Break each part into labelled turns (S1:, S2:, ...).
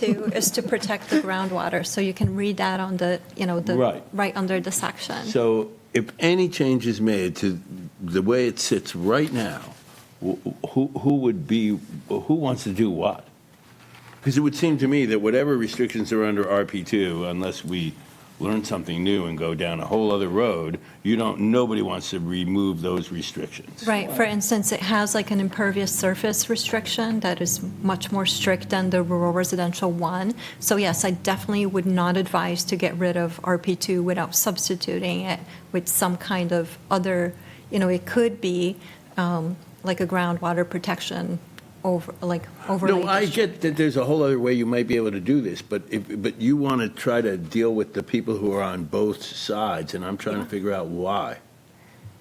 S1: to, is to protect the groundwater, so you can read that on the, you know, the,
S2: Right.
S1: right under the section.
S2: So if any change is made to the way it sits right now, wh- who, who would be, who wants to do what? Because it would seem to me that whatever restrictions are under RP2, unless we learn something new and go down a whole other road, you don't, nobody wants to remove those restrictions.
S1: Right, for instance, it has like an impervious surface restriction that is much more strict than the rural residential one. So yes, I definitely would not advise to get rid of RP2 without substituting it with some kind of other, you know, it could be um, like a groundwater protection over, like overlay.
S2: No, I
S1: district.
S2: get that there's a whole other way you might be able to do this, but if, but you want to try to deal with the people who are on both sides, and I'm trying to figure out why.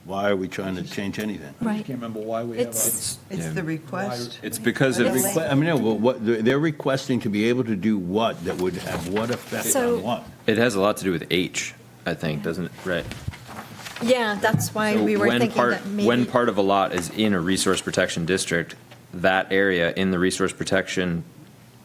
S2: Why are we trying to change anything?
S3: I
S1: Right.
S3: just can't remember why we have a.
S1: It's-
S4: It's the request.
S5: It's because
S4: of-
S5: of,
S4: Really?
S2: I mean, no, but what, they're they're requesting to be able to do what that would have what effect
S1: So-
S2: on what?
S5: it has a lot to do with H, I think, doesn't it? Right.
S1: Yeah, that's why we were
S5: When
S1: thinking
S5: part,
S1: that maybe.
S5: when part of a lot is in a resource protection district, that area in the resource protection,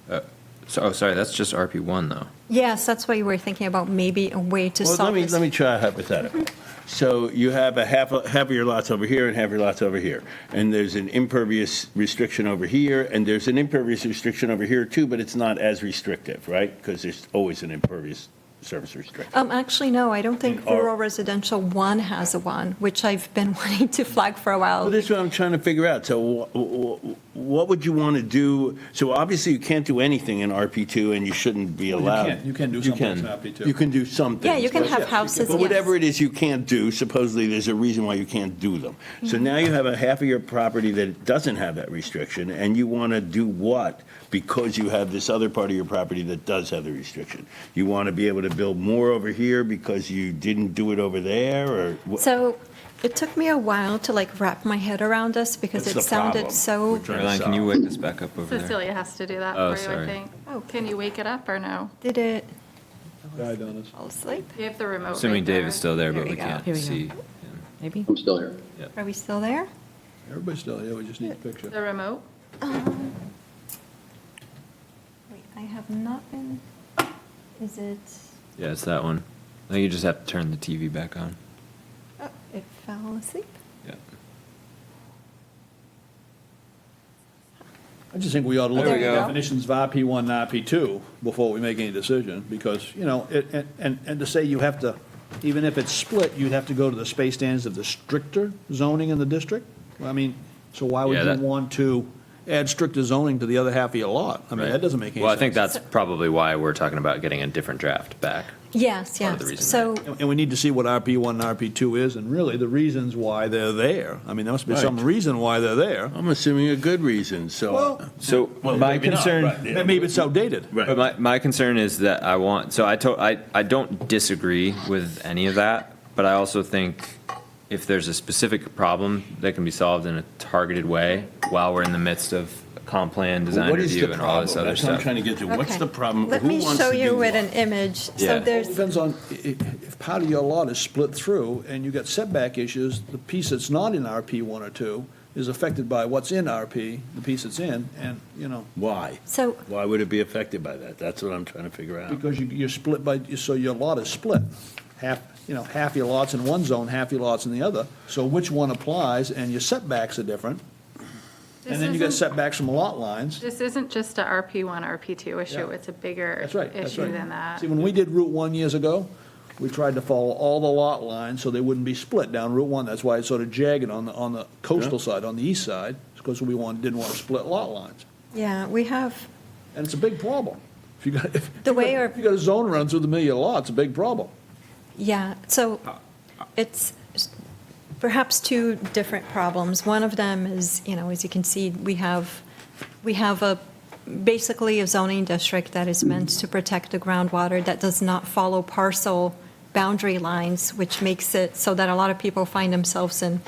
S5: uh, so, oh, sorry, that's just RP one though.
S1: Yes, that's why we were thinking about maybe a way to
S2: Well, let
S1: solve
S2: me,
S1: this.
S2: let me try a hypothetical. So you have a half, half of your lots over here and half your lots over here. And there's an impervious restriction over here, and there's an impervious restriction over here too, but it's not as restrictive, right? Because there's always an impervious surface restriction.
S1: Um, actually, no, I don't think
S2: In our-
S1: rural residential one has a one, which I've been wanting to flag for a
S2: Well,
S1: while.
S2: this is what I'm trying to figure out. So wh- wh- what would you want to do? So obviously you can't do anything in RP2 and you shouldn't be allowed.
S3: can't- you can do some things in RP2.
S2: You can do some things.
S1: Yeah, you can
S2: but-
S1: have houses,
S2: But whatever
S1: yes.
S2: it is you can't do, supposedly there's a reason why you can't do them. So
S1: Mm-hmm.
S2: now you have a half of your property that doesn't have that restriction and you want to do what? Because you have this other part of your property that does have the restriction. You want to be able to build more over here because you didn't do it over there or? wh-
S1: So it took me a while to like wrap my head around this because
S2: That's
S1: it
S2: the
S1: sounded
S2: problem
S1: so.
S2: we're trying to
S5: Caroline, can you
S2: solve.
S5: wake this back up over there?
S6: Cecilia has to do that
S5: Oh,
S6: for you,
S5: sorry.
S6: I think.
S1: Oh.
S6: Can you wake it up or no?
S1: Did it
S3: Died on us.
S1: fall asleep?
S6: You have the remote. oh, right
S5: Assuming Dave is still there,
S1: There
S5: but
S1: we
S5: we
S1: go.
S5: can't
S7: Here we go.
S5: see.
S7: Maybe?
S8: I'm still here.
S1: Are we still there?
S3: Everybody's still here, we just need a
S6: The
S3: picture.
S6: remote?
S1: Um, Wait, I have not been. Is it?
S5: Yeah, it's that one. I think you just have to turn the TV back on.
S1: Oh, it fell asleep.
S5: Yeah.
S3: I just think we ought to look
S1: There
S3: at
S1: we
S3: the
S1: go.
S3: definitions of RP1 and RP2 before we make any decision, because, you know, it- and, and and to say you have to, even if it's split, you'd have to go to the space standards of the stricter zoning in the district? Well, I mean, so why would
S5: Yeah,
S3: you
S5: that-
S3: want to add stricter zoning to the other half of your lot? I mean,
S5: Right.
S3: that doesn't make any sense.
S5: Well, I think that's probably why we're talking about getting a different draft back.
S1: Yes,
S5: Part of the
S1: yes.
S5: reason,
S1: So
S3: And and we need to see what RP1 and RP2 is, and really the reasons why they're there. I mean, there must be some
S2: Right.
S3: reason why they're there.
S2: I'm assuming a good reason, so.
S3: Well-
S5: So
S2: Well,
S5: my
S2: maybe not,
S5: concern.
S2: right, yeah.
S3: Maybe it's outdated.
S2: Right.
S5: But my, my concern is that I want, so I to, I, I don't disagree with any of that, but I also think if there's a specific problem that can be solved in a targeted way while we're in the midst of comp plan
S2: Well,
S5: design
S2: What is the
S5: review and all this
S2: problem?
S5: other
S2: That's what I'm
S5: stuff.
S2: trying to get to. What's
S1: Okay.
S2: the problem?
S1: Let
S2: Who
S1: me
S2: wants
S1: show
S2: to
S1: you
S2: do
S1: with
S2: what?
S1: an image. So
S5: Yeah.
S3: It
S1: there's.
S3: Depends on, i- i- if part of your lot is split through and you got setback issues, the piece that's not in RP1 or 2 is affected by what's in RP, the piece that's in, and, you know,
S2: Why?
S1: So
S2: Why would it be affected by that? That's what I'm trying to figure out.
S3: because you, you're split by, so your lot is split. Half, you know, half your lot's in one zone, half your lot's in the other. So which one applies, and your setbacks are different.
S6: This
S3: And then you got
S6: isn't-
S3: setbacks from lot lines.
S6: This isn't just a RP1, RP2 issue,
S3: Yeah.
S6: it's a bigger
S3: That's right, that's
S6: issue
S3: right.
S6: than that.
S3: See, when we did Route 1 years ago, we tried to follow all the lot lines so they wouldn't be split down Route 1. That's why it's sort of jagged on the, on the coastal side, on the east side, because we want, didn't want to split lot lines.
S1: yeah, we have.
S3: And it's a big problem. If you got, if
S1: The
S3: you got-
S1: way our-
S3: If you got a zone runs with a million lots, it's a big problem.
S1: Yeah, so it's perhaps two different problems. One of them is, you know, as you can see, we have, we have a, basically a zoning district that is meant to protect the groundwater that does not follow parcel boundary lines, which makes it so that a lot of people find themselves in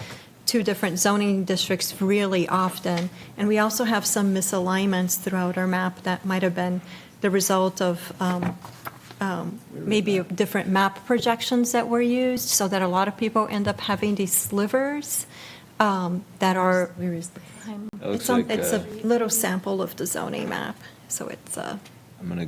S1: two different zoning districts really often. And we also have some misalignments throughout our map that might have been the result of um, maybe different map projections that were used, so that a lot of people end up having these slivers um, that are,
S7: Where is the?
S5: It looks
S1: it's on-
S5: like,
S1: it's a
S5: uh,
S1: little sample of the zoning map, so it's, uh,
S5: I'm gonna